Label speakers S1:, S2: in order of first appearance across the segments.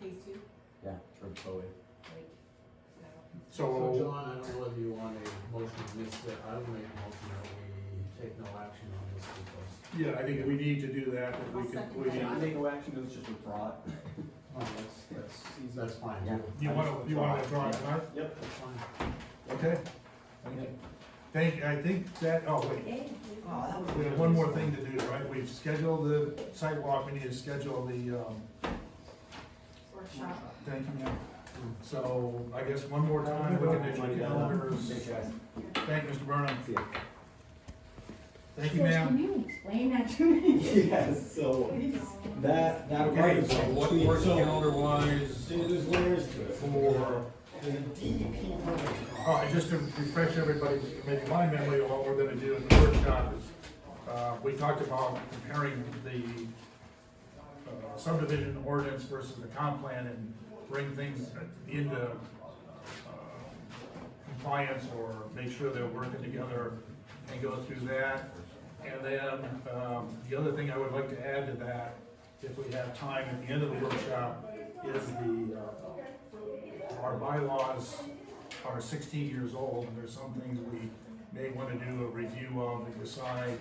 S1: phase two,
S2: Yeah, from Bowie.
S1: like, no.
S3: So,
S4: So John, I don't know whether you want a motion to this, but I would make a motion that we take no action on this because.
S3: yeah, I think we need to do that, and we can, we
S1: Yeah.
S2: I
S3: need,
S2: think no action, it was just withdraw it.
S4: Oh, that's, that's, that's fine.
S2: Yeah.
S3: you wanna, you wanna withdraw it, right?
S2: Yep.
S4: That's fine.
S3: Okay? Thank, I think that, oh, wait,
S1: Okay.
S3: we have one more thing to do, right? We've scheduled the sidewalk, we need to schedule the, um,
S1: Workshop.
S3: thank you, ma'am. So, I guess one more time, we can do your calendars.
S2: Thanks, guys.
S3: Thank you, Mr. Burnham.
S2: See ya.
S3: Thank you, ma'am.
S5: Can you explain that to me?
S2: Yes, so that, that.
S3: Okay, so what works calendar
S2: So
S3: wise
S2: There's layers to it.
S3: for,
S2: The DEP permit.
S3: all right, Oh, just to refresh everybody's, maybe my memory of what we're gonna do in the workshop is, uh, we talked about comparing the uh, subdivision ordinance versus the comp plan and bring things into uh, compliance or make sure they're working together and go through that. And then, um, the other thing I would like to add to that, if we have time at the end of the workshop, is the, uh, our bylaws are sixteen years old, and there's some things we may wanna do a review of and decide,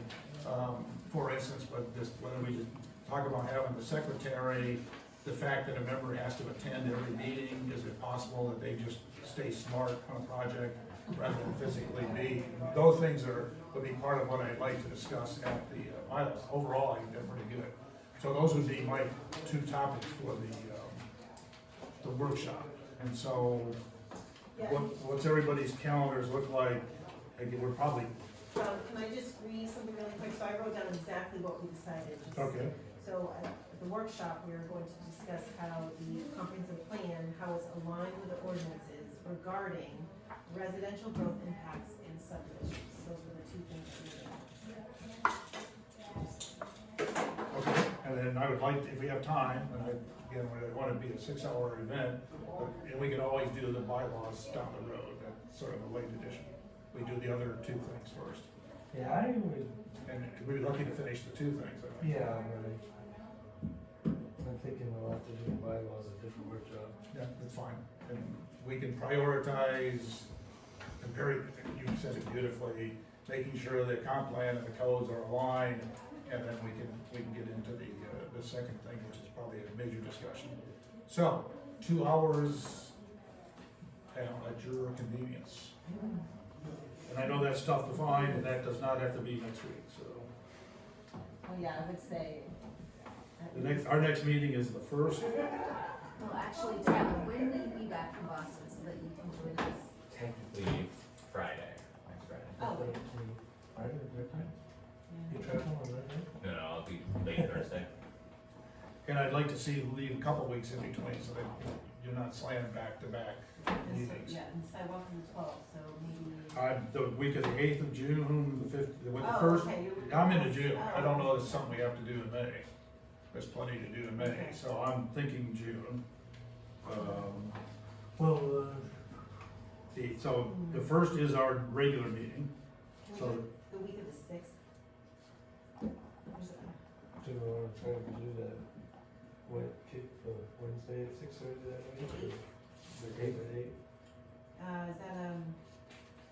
S3: um, for instance, but this, whether we just talk about having the secretary, the fact that a member has to attend every meeting, is it possible that they just stay smart on a project rather than physically be? Those things are, would be part of what I'd like to discuss at the uh, bylaws. Overall, I think they're pretty good. So those would be my two topics for the, um, the workshop. And so, what, what's everybody's calendars look like? Again, we're probably,
S6: Um, can I just read something really quick? So I wrote down exactly what we decided. just-
S3: okay,
S6: So at the workshop, we are going to discuss how the comprehensive plan, how it's aligned with the ordinances regarding residential growth impacts and subdivisions. Those were the two things we did.
S3: okay. And then I would like, if we have time, and I, again, we want to be a six-hour event, but- and we can always do the bylaws down the road, that's sort of a late addition. We do the other two things first,
S7: Yeah, I would,
S3: and we'd be lucky to finish the two things, I think.
S7: yeah, right. I'm thinking we'll have to do the bylaws a different workshop.
S3: Yeah, that's fine. And we can prioritize, comparing, you said it beautifully, making sure the comp plan and the codes are aligned, and then we can, we can get into the, uh, the second thing, which is probably a major discussion. So, two hours at at your convenience. And I know that's tough to find, and that does not have to be next week, so.
S6: Oh, yeah, I would say. at
S3: The next,
S6: least-
S3: our next meeting is the first,
S1: Well, actually, Tyler, when will you be back from Boston so that you can join us?
S8: Technically Friday, next Friday.
S6: Oh, wait.
S7: Are you different? You try to one, right?
S8: No, no, I'll be late Thursday.
S3: And I'd like to see you leave a couple weeks in between, so that you're not slammed back to back
S6: and so-
S3: meetings.
S6: Yeah, and sidewalk is the twelfth, so maybe.
S3: Uh, the week of the eighth of June, the fifth, with the
S6: Oh,
S3: first,
S6: okay, you-
S3: I'm into June,
S6: Oh,
S3: I don't know if it's something we have to do in May. There's plenty to do in May, so I'm thinking June. Um,
S7: Well, uh,
S3: the, so the
S6: Mm-hmm.
S3: first is our regular meeting,
S6: Can we
S3: so
S6: do it the week of the sixth? There's a-
S7: do we wanna try to do that? What, kick for Wednesday at six thirty that week? The eight at eight?
S6: Uh, is that, um,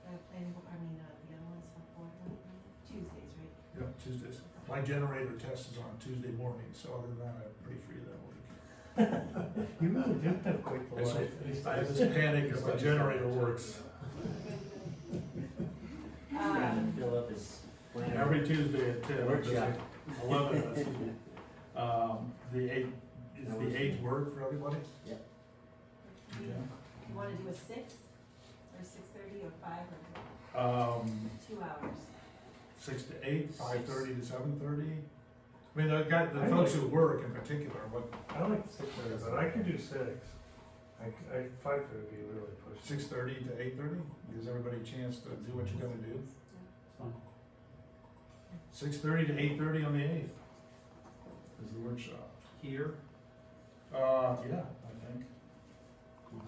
S6: that planning, bo- I mean, uh, the other one's for board, meeting? Tuesdays, right?
S3: Yeah, Tuesdays. My generator test is on Tuesday morning, so other than that, I'm pretty free that week.
S7: You really do have quite the
S3: I
S7: life.
S3: just- I just panic if my generator works.
S6: Um,
S2: Fill up his.
S3: Every Tuesday at ten.
S2: Workshop.
S3: Eleven, that's good. Um, the eighth, is the eighth word for everybody?
S2: Yep.
S3: Yeah.
S6: you wanna do a six, or six thirty, or five, or
S3: Um,
S6: two hours?
S3: six to eight, five thirty to seven thirty? I mean, the guy, the folks who work in particular, what,
S7: I like six thirty, but I could do six. I, c- I, five would be really pushed.
S3: six thirty to eight thirty? Gives everybody a chance to do what you're gonna do? Six thirty to eight thirty on the eighth is the workshop. Here? Uh, yeah, I think.
S6: Do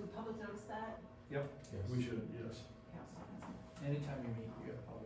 S6: the public notice that?
S3: We should, yes.
S6: Council.
S7: Anytime you meet, you gotta